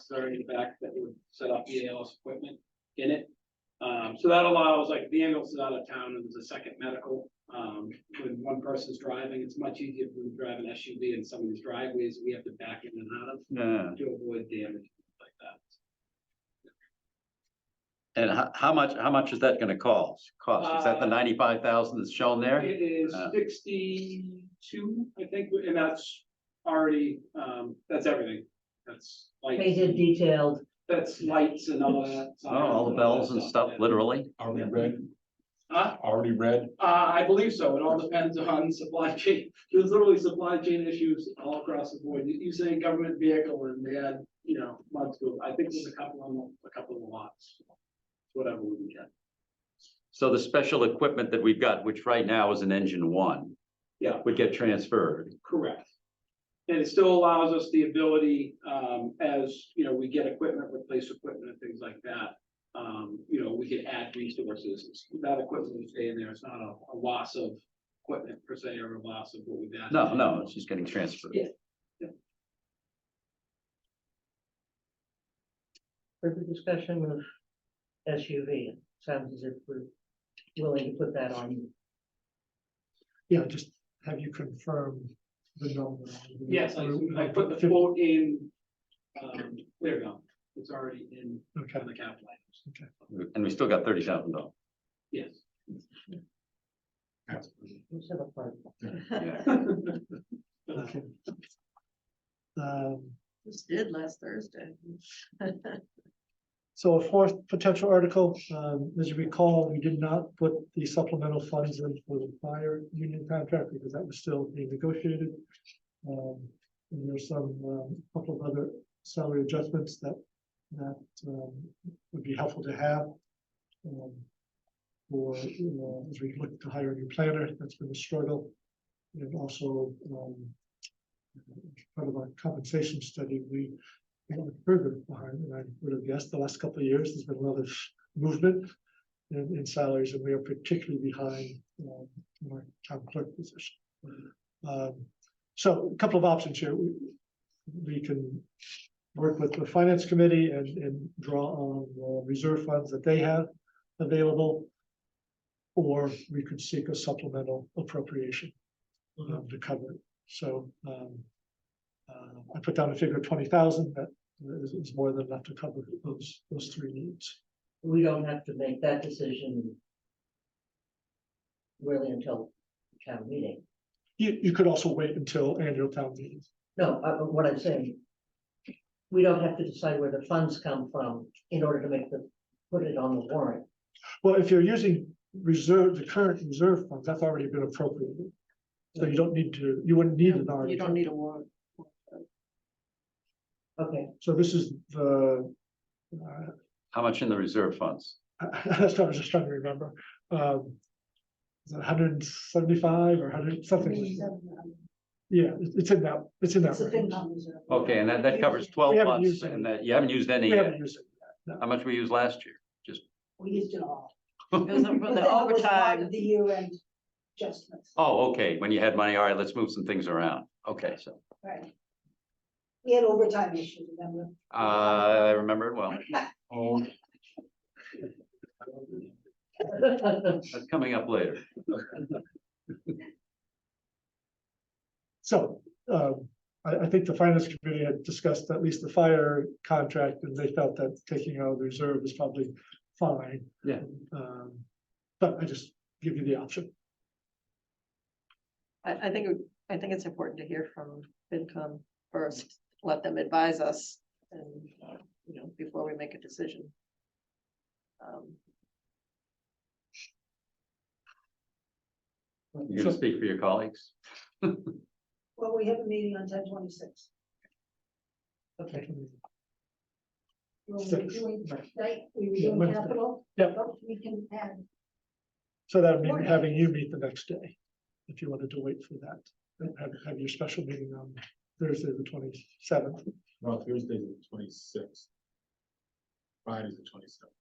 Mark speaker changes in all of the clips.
Speaker 1: necessary in fact that would set up the ALS equipment in it. Um, so that allows, like, the ambulance is out of town and there's a second medical, um, when one person's driving, it's much easier when you drive an SUV in some of these driveways, we have to back in and out of
Speaker 2: Yeah,
Speaker 1: to avoid damage like that.
Speaker 2: and how, how much, how much is that gonna cost? Cost, is that the
Speaker 1: Uh,
Speaker 2: ninety-five thousand that's shown there?
Speaker 1: It is
Speaker 2: Uh.
Speaker 1: sixty-two, I think, and that's already, um, that's everything, that's
Speaker 3: They
Speaker 1: lights,
Speaker 3: did detailed,
Speaker 1: that's lights and all that.
Speaker 2: Oh, all the bells and stuff, literally?
Speaker 4: Already read,
Speaker 1: Huh?
Speaker 4: already read.
Speaker 1: Uh, I believe so. It all depends on supply chain. There's literally supply chain issues all across the board. You, you say government vehicle and they had, you know, months ago. I think there's a couple on, the- a couple of lots. Whatever we can get.
Speaker 2: So the special equipment that we've got, which right now is an engine one.
Speaker 1: Yeah.
Speaker 2: Would get transferred.
Speaker 1: Correct. And it still allows us the ability, um, as, you know, we get equipment, replace equipment and things like that. Um, you know, we can add resources. That equipment we stay in there. It's not a, a loss of equipment per se or a loss of what we've added.
Speaker 2: No, no, it's just getting transferred.
Speaker 1: Yeah.
Speaker 3: further discussion of SUV, sounds as if we're willing to put that on.
Speaker 5: Yeah, just have you confirmed the number?
Speaker 1: Yes, I, I put the quote in, um, there we go, it's already in
Speaker 5: Okay,
Speaker 1: kind of the capital items,
Speaker 2: And we still got thirty thousand dollars.
Speaker 1: yes.
Speaker 3: let's have a part.
Speaker 2: Yeah.
Speaker 5: okay. Um,
Speaker 6: Just did last Thursday.
Speaker 5: So a fourth potential article, um, as you recall, we did not put the supplemental funds in for the fire union contract because that was still being negotiated. Um, and there's some, um, couple of other salary adjustments that, that, um, would be helpful to have. Um, for, you know, as we look to hire a new planner, that's been a struggle. And also, um, part of our compensation study, we and further behind, and I would have guessed the last couple of years, there's been a lot of movement in, in salaries, and we are particularly behind, um, in our town clerk position. Um, so a couple of options here. We, we can work with the finance committee and, and draw on the reserve funds that they have available. Or we could seek a supplemental appropriation um, to cover it. So, um, uh, I put down a figure of twenty thousand, that is, is more than enough to cover those, those three needs.
Speaker 3: We don't have to make that decision really until the town meeting.
Speaker 5: You, you could also wait until annual town meeting.
Speaker 3: No, uh, uh, what I'm saying, we don't have to decide where the funds come from in order to make the, put it on the warrant.
Speaker 5: Well, if you're using reserve, the current reserve funds, that's already been appropriated. So you don't need to, you wouldn't need an
Speaker 6: You don't
Speaker 5: article.
Speaker 6: need a warrant.
Speaker 3: Okay,
Speaker 5: So this is the, uh,
Speaker 2: How much in the reserve funds?
Speaker 5: that's what I was just trying to remember. Um, is it hundred and seventy-five or hundred, something? like that. Yeah, it- it's in that, it's in that range.
Speaker 2: Okay, and that, that covers twelve
Speaker 5: We haven't
Speaker 2: months
Speaker 5: used any.
Speaker 2: and that, you haven't used any
Speaker 5: We haven't
Speaker 2: yet.
Speaker 5: used it.
Speaker 2: How much we used last year?
Speaker 7: We used it all.
Speaker 6: It was for
Speaker 7: But
Speaker 6: the
Speaker 7: that was part
Speaker 6: overtime.
Speaker 7: of The year end adjustments,
Speaker 2: Oh, okay, when you had money, all right, let's move some things around. Okay, so,
Speaker 7: right? We had overtime issues, remember?
Speaker 2: uh, I remember it well.
Speaker 4: Oh,
Speaker 2: That's coming up later.
Speaker 5: So, um, I, I think the finance committee had discussed at least the fire contract, and they felt that taking out the reserve is probably fine.
Speaker 2: Yeah.
Speaker 5: Um, but I just give you the option.
Speaker 6: I, I think, it would- I think it's important to hear from FinCom first, let them advise us and, uh, you know, before we make a decision. Um,
Speaker 2: You're gonna speak for your colleagues.
Speaker 7: Well, we have a meeting on ten twenty-six.
Speaker 3: okay.
Speaker 7: We were
Speaker 5: Six.
Speaker 7: doing,
Speaker 5: Right.
Speaker 7: right, we were
Speaker 5: Yeah,
Speaker 7: doing
Speaker 5: Wednesday.
Speaker 7: capital.
Speaker 5: Yep.
Speaker 7: But we can add,
Speaker 5: So that would mean
Speaker 7: Right.
Speaker 5: having you meet the next day, if you wanted to wait for that, and have, have your special meeting on Thursday, the twenty-seventh.
Speaker 4: no, Thursday's the twenty-sixth. Friday's the twenty-seventh.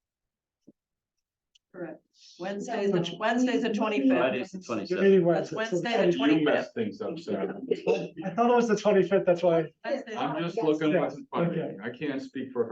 Speaker 6: correct. Wednesday's the,
Speaker 5: No.
Speaker 6: Wednesday's the
Speaker 2: Friday is
Speaker 6: twenty-fifth.
Speaker 2: the
Speaker 5: Your
Speaker 2: twenty-seventh.
Speaker 5: meeting was.
Speaker 6: That's Wednesday, the
Speaker 4: You
Speaker 6: 25th.
Speaker 4: messed things up, Sarah.
Speaker 5: I thought it was the twenty-fifth, that's why.
Speaker 4: I'm just looking what's in front of me.
Speaker 5: Okay.
Speaker 4: I can't speak for her.